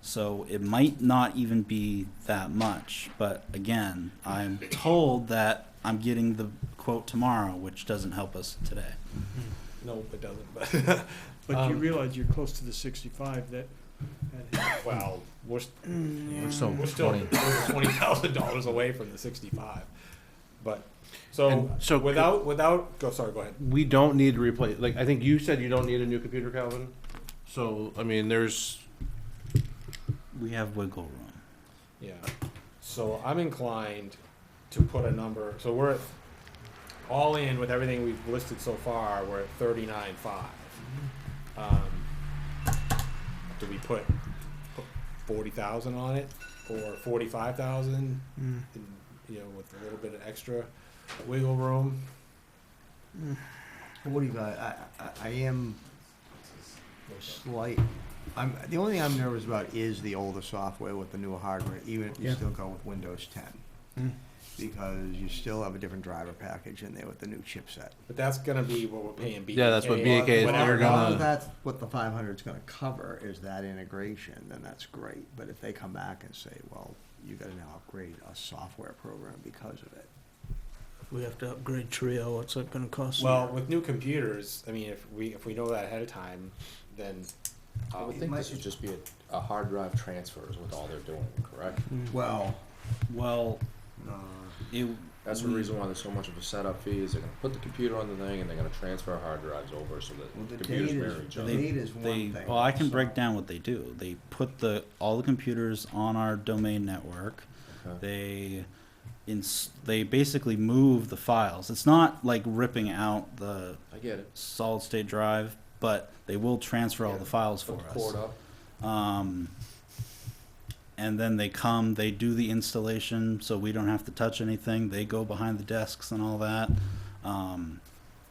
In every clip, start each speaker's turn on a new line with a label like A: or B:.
A: so it might not even be that much. But again, I'm told that I'm getting the quote tomorrow, which doesn't help us today.
B: No, it doesn't, but,
C: But you
B: Um,
C: realize you're close to the sixty-five that, that-
B: well, we're, st-
D: We're still
B: we're still
D: twenty.
B: twenty thousand dollars away from the sixty-five. But, so,
D: And so could-
B: without, without, go, sorry, go ahead.
D: We don't need to replace, like, I think you said you don't need a new computer, Calvin. So, I mean, there's,
A: We have wiggle room.
B: Yeah. So I'm inclined to put a number, so we're at, all in with everything we've listed so far, we're at thirty-nine five. Um, do we put forty thousand on it or forty-five thousand?
C: Mm.
B: You know, with a little bit of extra wiggle room?
E: Forty-five, I, I, I am slight, I'm, the only thing I'm nervous about is the older software with the newer hardware, even if you
C: Yeah.
E: still go with Windows ten.
A: Hmm.
C: Mm.
E: Because you still have a different driver package in there with the new chipset.
B: But that's gonna be what we're paying BK.
D: Yeah, that's what BAK is.
B: whatever.
D: They're
E: Well,
D: gonna-
E: if That's what the five hundred's gonna cover, is that integration, then that's great, but if they come back and say, well, you gotta now upgrade a software program because of it.
C: we have to upgrade Trio, what's that gonna cost?
B: Well, with new computers, I mean, if we, if we know that ahead of time, then.
F: I
B: um,
F: would think
E: might-
F: this would just be a, a hard drive transfer is what all they're doing, correct?
A: Hmm.
E: Well,
A: Well,
E: uh,
A: it,
F: That's
E: Mm-hmm.
F: the reason why there's so much of a setup fee, is they're gonna put the computer on the thing and they're gonna transfer hard drives over so
E: Well,
F: that
E: the
F: computers
E: data
F: mirror
E: is-
F: each
E: the
F: other.
A: they,
E: Need is one
A: they,
E: thing.
A: well, I can break down what they do. They put the, all the computers on our domain network.
F: Okay.
A: They, ins- they basically move the files. It's not like ripping out the
F: I get it.
A: solid state drive, but they will transfer all
F: Yeah.
A: the files for
F: Put the cord
A: us.
F: up.
A: Um, and then they come, they do the installation, so we don't have to touch anything. They go behind the desks and all that. Um,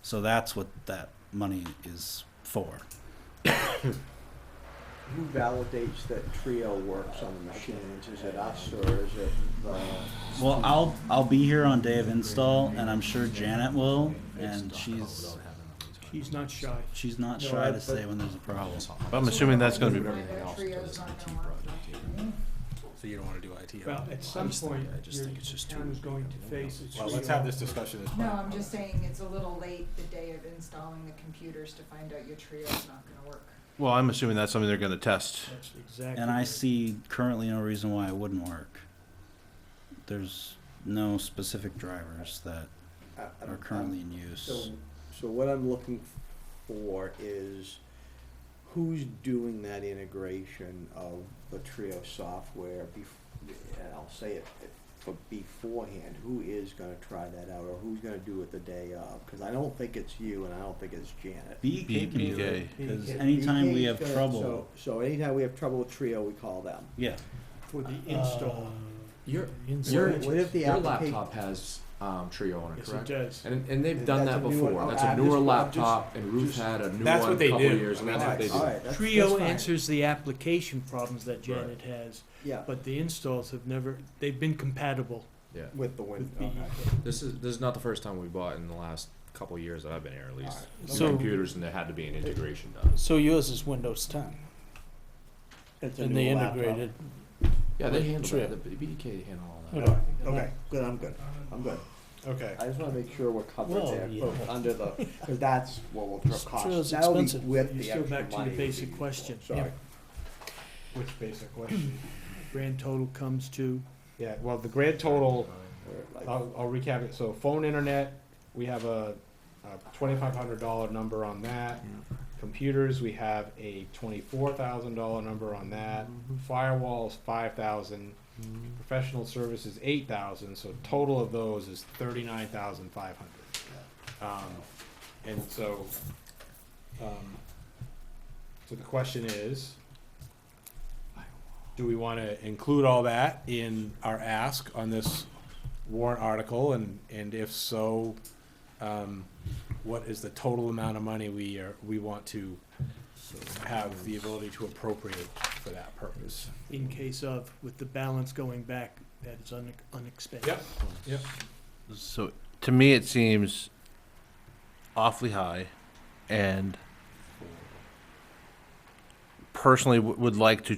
A: so that's what that money is for.
E: Who validates that Trio works on the machines? Is it us or is it the?
A: Well, I'll I'll be here on day of install, and I'm sure Janet will, and she's
C: He's not shy.
A: she's not
B: No,
A: shy
B: I-
A: to say when there's a problem.
D: I'm assuming that's gonna be,
F: Everything else until there's an IT project here.
B: So you don't wanna do IT?
C: Well, at some point, your town is going to face its.
B: Well, let's have this discussion as
G: No,
B: well.
G: I'm just saying it's a little late the day of installing the computers to find out your trio's not gonna work.
D: well, I'm assuming that's something they're gonna test.
C: That's exactly.
A: And I
C: right.
A: see currently no reason why it wouldn't work. There's no specific drivers that are currently in
E: So,
A: use.
E: so what I'm looking for is who's doing that integration of the Trio software bef- and I'll say it, but beforehand, who is gonna try that out or who's gonna do it the day of? Cause I don't think it's you and I don't think it's Janet.
A: BK can do it
C: BK.
A: because
E: If
A: anytime we
E: BK's
A: have
E: gonna-
A: trouble,
E: so- So anytime we have trouble with Trio, we call them.
A: yeah,
C: For the install.
F: Your,
E: What if- what if the
F: your
E: applica-
F: laptop has, um, Trio on it,
C: Yes, it
F: correct?
C: does.
F: And, and they've
E: That's
F: done
E: a
F: that
E: new one.
F: before.
E: Oh,
F: That's a
E: I'm
F: newer
E: just- I'm just-
F: laptop and Ruth had a new
B: That's
F: one
B: what
F: a
B: they
F: couple
B: do.
F: years and that's what
E: Alright,
F: they do.
E: alright, that's-
C: Trio
E: that's fine.
C: answers the application problems that Janet has,
E: Yeah,
C: but the installs have never, they've been compatible
F: Yeah.
E: with the
C: with
E: window.
C: BEK.
F: This is this is not the first time we bought in the last couple of years that I've been here, at least.
E: Alright.
F: Two
H: So-
F: computers, and there had to be an integration
C: E.
F: done.
H: So yours is Windows 10, and they integrated.
F: Yeah, they handled
H: True.
F: it. The BK handled all that.
H: Hold on.
E: Okay, good, I'm good, I'm good.
B: Okay.
E: I just wanna make sure we're covered
H: Well,
E: there,
H: yeah.
E: both under the, cause that's what will
H: It's true,
E: cost,
H: it's
E: that'll be
H: expensive.
E: with
C: You're
E: the
C: still
E: extra
C: back to the
E: money would
C: basic
E: be-
C: question.
E: Sorry,
B: Which basic question?
C: Grand total comes to,
B: Yeah, well, the grand total,
E: we're like-
B: I'll, I'll recap it. So phone internet, we have a, a twenty-five hundred dollar number on that. Computers, we have a twenty-four thousand dollar number on that. Firewalls, five thousand. Professional services, eight thousand, so total of those is thirty-nine thousand five hundred. Um, and so, um, so the question is, do we want to include all that in our ask on this warrant article? And, and if so, um, what is the total amount of money we are, we want to have the ability to appropriate for that purpose?
C: in case of, with the balance going back, that is un- unexpected.
B: Yep. Yep.
D: So to me, it seems awfully high, and personally w- would like to